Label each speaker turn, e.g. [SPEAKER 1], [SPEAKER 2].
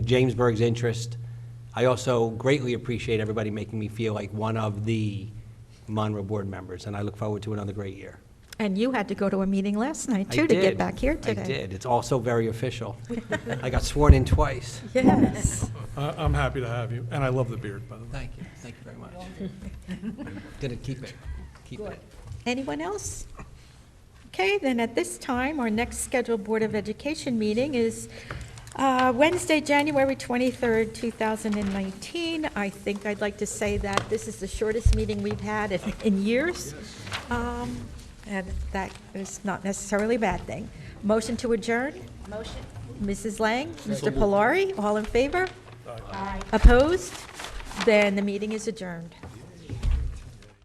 [SPEAKER 1] Jamesburg's interest. I also greatly appreciate everybody making me feel like one of the Monroe Board members, and I look forward to another great year.
[SPEAKER 2] And you had to go to a meeting last night,
[SPEAKER 1] I
[SPEAKER 2] too, to
[SPEAKER 1] did.
[SPEAKER 2] get back here today.
[SPEAKER 1] I did. It's also very official. I got sworn in twice.
[SPEAKER 2] Yes.
[SPEAKER 3] I- I'm happy to have you, and I love the beard, by the way.
[SPEAKER 1] Thank you, thank you very much. Gonna keep it, keep it.
[SPEAKER 2] Anyone else? Okay, then at this time, our next scheduled Board of Education meeting is uh, Wednesday, January 23rd, 2019. I think I'd like to say that this is the shortest meeting we've had in- in years. Um, And that is not necessarily a bad thing. Motion to adjourn? Motion. Mrs. Lang, Mr. Polari, all in favor? Aye. Opposed? Then the meeting is adjourned.